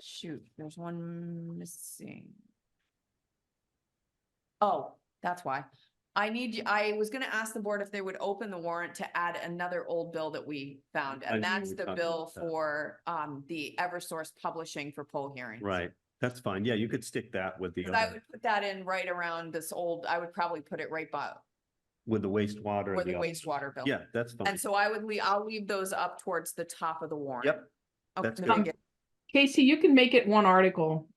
Shoot, there's one missing. Oh, that's why. I need, you- I was gonna ask the board if they would open the warrant to add another old bill that we found, I and knew that's we the talked bill about that. for, um, the Eversource Publishing for poll hearings. Right, that's fine. Yeah, you could stick that with the, 'Cause I other- would put that in right around this old, I would probably put it right by, with the wastewater. where and the other- wastewater bill. Yeah, that's fine. And so I would leave, I'll leave those up towards the top of the warrant. Yep, Okay, that's then good. I'll get- Casey, you can make it one article.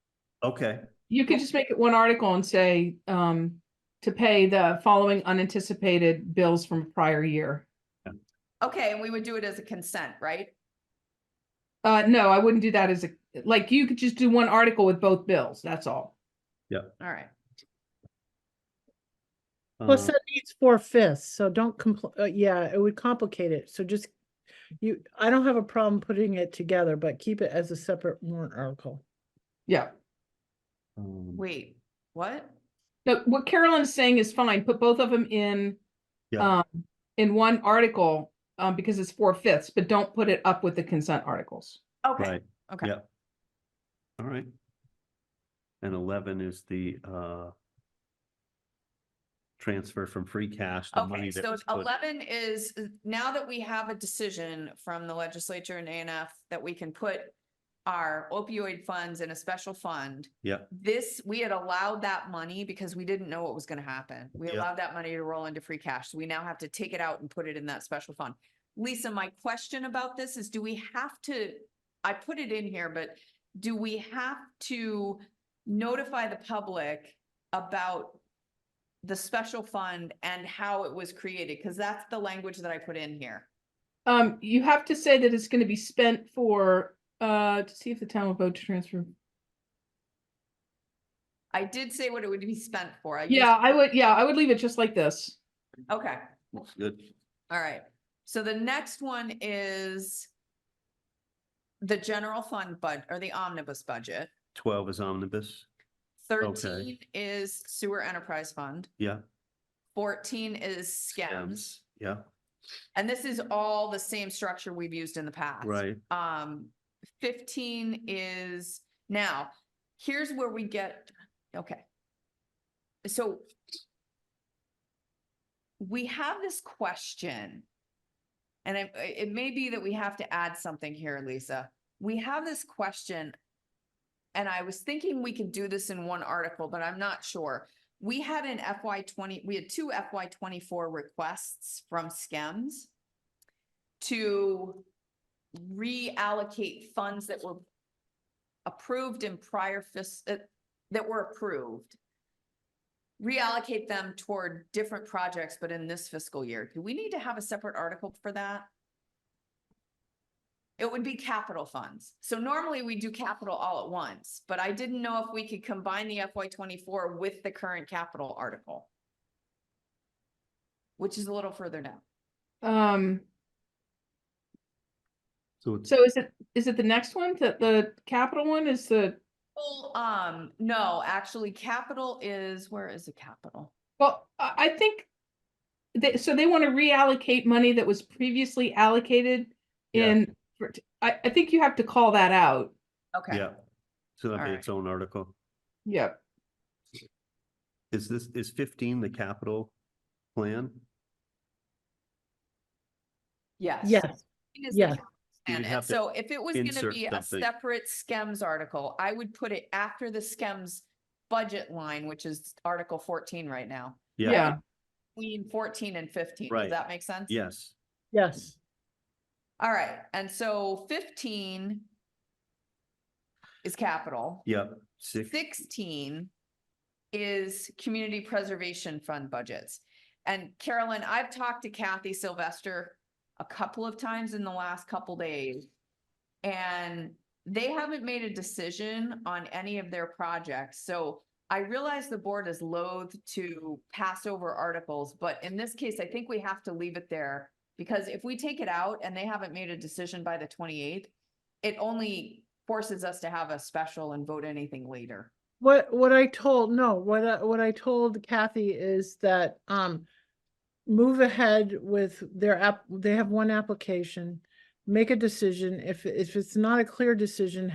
okay, You could just make it one article and say, um, to pay the following unanticipated bills from prior year. Okay, and we would do it as a consent, right? Uh, no, I wouldn't do that as a, like, you could just do one article with both bills, that's all. All right. uh, Plus Um, that needs four fifths, so don't compl- uh, yeah, it would complicate it, so just. You, I don't have a problem putting it together, but keep it as a separate warrant article. Yeah. um, Wait, what? No, what Carolyn is saying is fine, put both of them in, Yeah. um, in one article, um, because it's four fifths, but don't put it up with the consent articles. Okay, Right, okay. yep. All right. And eleven is the, uh, transfer from free cash, the money Okay, that so was put- eleven is, uh, now that we have a decision from the legislature and ANF that we can put our opioid funds in a special fund. Yep. This, we had allowed that money because we didn't know what was gonna happen. We Yep. allowed that money to roll into free cash. So we now have to take it out and put it in that special fund. Lisa, my question about this is, do we have to, I put it in here, but do we have to notify the public about the special fund and how it was created? Because that's the language that I put in here. Um, you have to say that it's gonna be spent for, uh, to see if the town will vote to transfer. I did say what it would be spent for. I used- Yeah, I would, yeah, I would leave it just like this. Okay, Looks Good, all right. So the next one is the general fund bud, or the omnibus budget. twelve is omnibus, Thirteen is sewer enterprise fund. yeah, Fourteen is scams. yeah, And this is all the same structure we've used in the past. right, Um, fifteen is now, here's where we get, okay. So. We have this question. And it, it may be that we have to add something here, Lisa. We have this question. And I was thinking we could do this in one article, but I'm not sure. We had an FY twenty, we had two FY twenty-four requests from SCEMS to reallocate funds that were approved in prior fis, uh, that were approved. Reallocate them toward different projects, but in this fiscal year. Do we need to have a separate article for that? It would be capital funds. So normally we do capital all at once, but I didn't know if we could combine the FY twenty-four with the current capital article. Which is a little further down. Um, so it's, so is it, is it the next one that the capital one is the, Well, um, no, actually, capital is, where is the capital? well, I, I think they, so they want to reallocate money that was previously allocated Yeah. in, for- I, I think you have to call that out. Okay, yeah. So that'd be Alright. its own article. Yep. Is this, is fifteen the capital plan? yes. Yes, It is the yeah. capital You plan. would have And to so if it was gonna insert be a something. separate scems article, I would put it after the scems budget line, which is Article fourteen right now. Yeah. Between fourteen and fifteen, Right. does that make sense? Yes, yes, All right, and so fifteen is capital. yep, six, Sixteen is community preservation fund budgets. And Carolyn, I've talked to Kathy Sylvester a couple of times in the last couple days. And they haven't made a decision on any of their projects, so I realize the board is loath to pass over articles, but in this case, I think we have to leave it there. Because if we take it out and they haven't made a decision by the twenty-eighth, it only forces us to have a special and vote anything later. what, what I told, no, what I, what I told Kathy is that, um. Move ahead with their app, they have one application, make a decision, if, if it's not a clear decision,